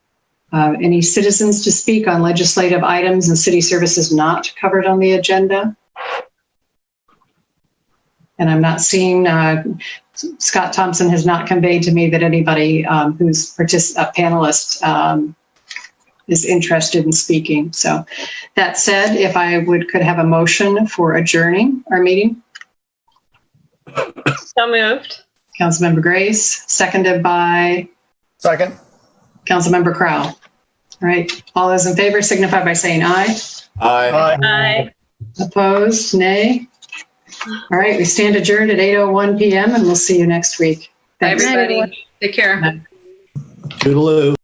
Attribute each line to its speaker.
Speaker 1: Uh, Any citizens to speak on legislative items and city services not covered on the agenda? And I'm not seeing, uh, Scott Thompson has not conveyed to me that anybody um, who's partic- a panelist um, is interested in speaking. So that said, if I would, could have a motion for adjourning our meeting.
Speaker 2: So moved.
Speaker 1: Councilmember Grace, seconded by
Speaker 3: Second.
Speaker 1: Councilmember Crowell. All right, all those in favor signify by saying aye.
Speaker 4: Aye.
Speaker 2: Aye.
Speaker 1: Opposed, nay? All right, we stand adjourned at 8:01 PM and we'll see you next week.
Speaker 2: Bye,
Speaker 1: Thanks.
Speaker 2: everybody. Take care.
Speaker 4: Toodaloo.